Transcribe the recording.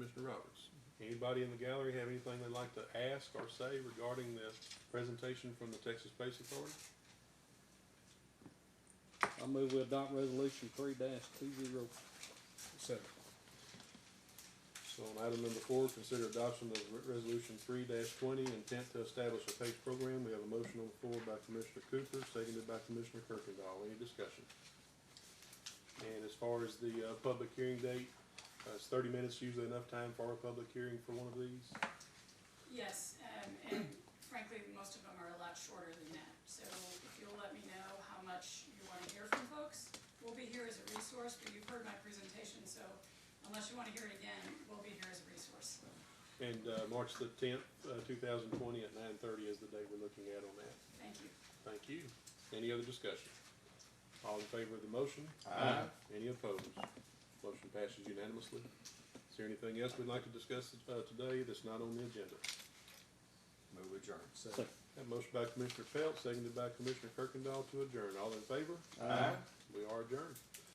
Mr. Roberts. Anybody in the gallery have anything they'd like to ask or say regarding the presentation from the Texas Space Authority? I move we adopt resolution three two zero. Second. So on item number four, consider adoption of Re- Resolution three twenty, intent to establish a PACE program. We have a motion on the floor by Commissioner Cooper, seconded by Commissioner Kirkendall. Any discussion? And as far as the, uh, public hearing date, uh, is thirty minutes usually enough time for a public hearing for one of these? Yes, um, and frankly, most of them are a lot shorter than that. So if you'll let me know how much you wanna hear from folks, we'll be here as a resource, but you've heard my presentation, so unless you wanna hear it again, we'll be here as a resource. And, uh, March the tenth, uh, two thousand twenty at nine thirty is the date we're looking at on that. Thank you. Thank you. Any other discussion? All in favor of the motion? Aye. Any opposed? Motion passes unanimously. Is there anything else we'd like to discuss, uh, today that's not on the agenda? Move adjourn. Second. That motion by Commissioner Pelt, seconded by Commissioner Kirkendall to adjourn. All in favor? Aye. We are adjourned.